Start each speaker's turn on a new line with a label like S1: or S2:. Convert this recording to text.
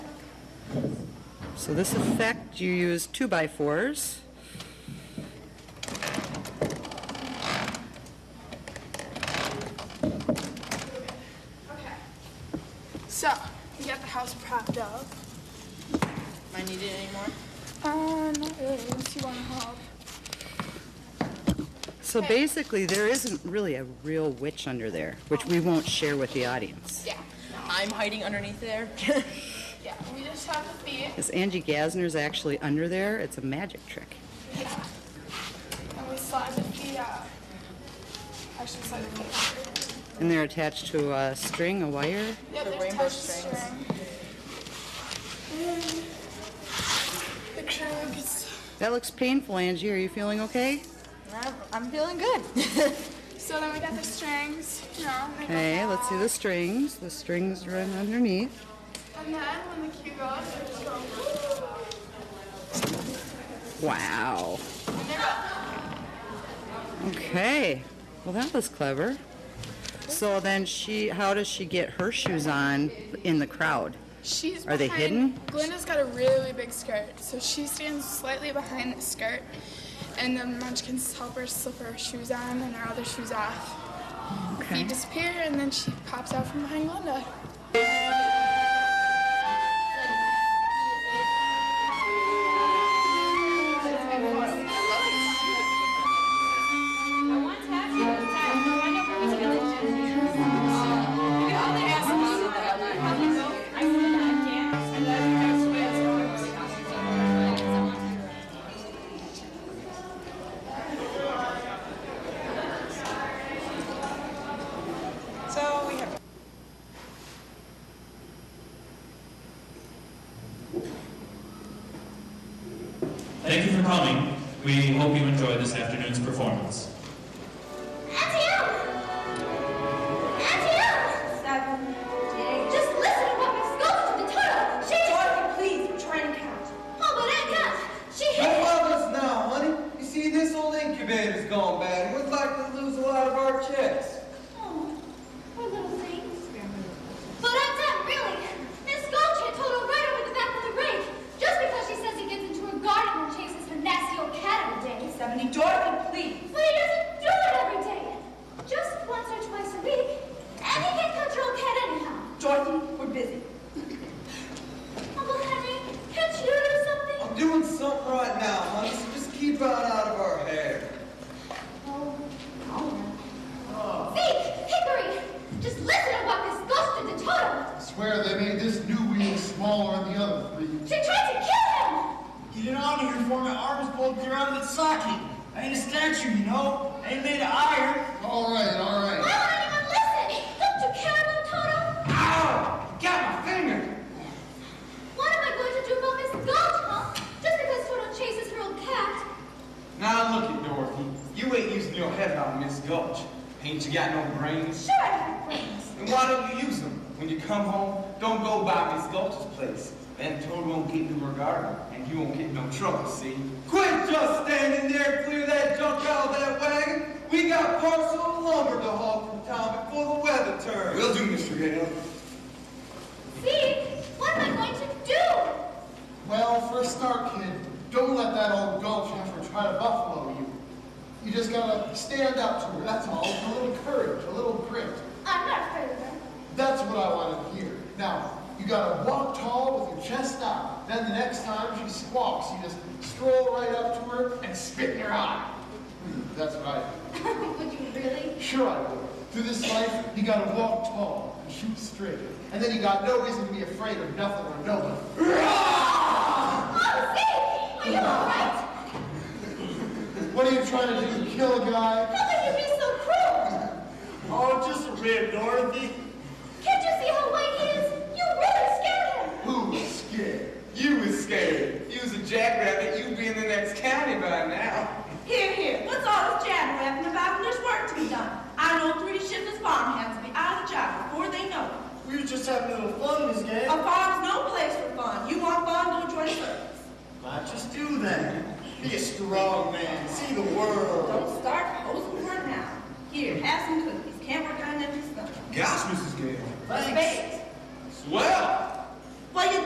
S1: So this effect, you use two-by-fours.
S2: So, we got the house propped up.
S3: Am I needed anymore?
S2: Uh, not really, unless you want to help.
S1: So basically, there isn't really a real witch under there, which we won't share with the audience.
S2: Yeah.
S3: I'm hiding underneath there.
S2: Yeah, we just have the feet,
S1: Because Angie Gasner's actually under there, it's a magic trick.
S2: and we slide the feet out. Actually, slide the feet
S1: And they're attached to a string, a wire.
S2: out. Yep,
S3: The
S2: there's
S3: rainbow
S2: touch
S3: strings.
S2: string. Mm. The crib is-
S1: That looks painful, Angie. Are you feeling okay?
S3: I'm- I'm feeling good.
S2: So then we got the strings, you know. they go
S1: Okay, let's see
S2: back.
S1: the strings. The strings run underneath.
S2: And then when the cue goes, we just go.
S1: Wow.
S2: And they're up.
S1: Okay. Well, that was clever. So then she, how does she get her shoes on in the crowd?
S2: She's
S1: Are they
S2: behind-
S1: hidden?
S2: Glenda's got a really big skirt, so she stands slightly behind the skirt, and the munchkins help her slip her shoes on and her other shoes off. They
S1: Okay.
S2: disappear, and then she pops out from behind Glenda.
S4: So we have.
S5: Thank you for coming. We hope you enjoyed this afternoon's performance.
S6: Just listen to what Miss Ghost in the tunnel. She Dorothy, please, we're trying to count. Oh, but that counts. She
S7: Don't
S6: hit.
S7: love us now, honey. You see, this old incubator's gone bad. We're likely to lose a lot of our chicks.
S6: Oh, poor little things. But that's it, really. Miss Ghost had told her right over the back of the rake. Just because she says he gets into her garden and chases her nasty old cat every day.
S3: Stephanie, Dorothy, please.
S6: But he doesn't do it every day. Just once or twice a week. And he can control cat anyhow.
S3: Dorothy, we're busy.
S6: Uncle Henry, can't you do something?
S7: I'm doing something right now, honey, so just keep it out of our hair.
S3: Oh,
S6: Zeke, Hickory, just listen to what Miss Ghost did to Toto.
S8: Swear they made this new wheel smaller than the other three.
S6: She tried to kill him!
S9: Get it out of here before my arm is pulled clear out of its socket. I ain't a statue, you know. I ain't made of iron.
S8: All right, all right.
S6: Why won't anyone listen? Don't you care about Toto?
S7: Ow! You got my finger!
S6: What am I going to do about Miss Gulch, huh? Just because Toto chases her old cat?
S7: Now look at Dorothy. You ain't using your head on Miss Gulch. Ain't you got no brains?
S6: Sure, I have brains.
S7: Then why don't you use them? When you come home, don't go by Miss Gulch's place. Then Toad won't get into her garden, and you won't get no trouble, see? Quit just standing there, clear that junk out of that wagon. We got parcel of lumber to haul from town before the weather turns. Will do, Mr. Gale.
S6: Zeke, what am I going to do?
S8: Well, for a start, kid, don't let that old gulch heifer try to buffalo you. You just gotta stand up to her, that's all. A little courage, a little grit.
S6: I'm not afraid of her.
S8: That's what I want to hear. Now, you gotta walk tall with your chest out. Then the next time she squawks, you just stroll right up to her and spit in her eye. Hmm, That's what I do.
S6: Would you really?
S8: Sure I would. Through this life, you gotta walk tall and shoot straight. And then you got no reason to be afraid of nothing or nobody.
S6: Oh, Zeke! Are you alright?
S8: What are you trying to do? Kill a guy?
S6: How could you be so cruel?
S9: Oh, just a rib, Dorothy.
S6: Can't you see how white he is? You really scared him!
S7: Who was scared? You was scared. You was a jackrabbit. You'd be in the next county by now.
S10: Here, here, what's all this jabber-rapping about when there's work to be done? I know three shiftless farmhands will be out of the job before they know it.
S9: We were just having a little fun, Miss Gay.
S10: A farm's no place for fun. You want fun, go join the circus.
S9: Not just do that. Be a strong man. See the world.
S10: Don't start posing for it now. Here, have some cookies. Can't work on empty stomach.
S7: Gosh, Mrs. Gale.
S9: Thanks.
S10: Spades.
S7: Swell!
S10: Well, you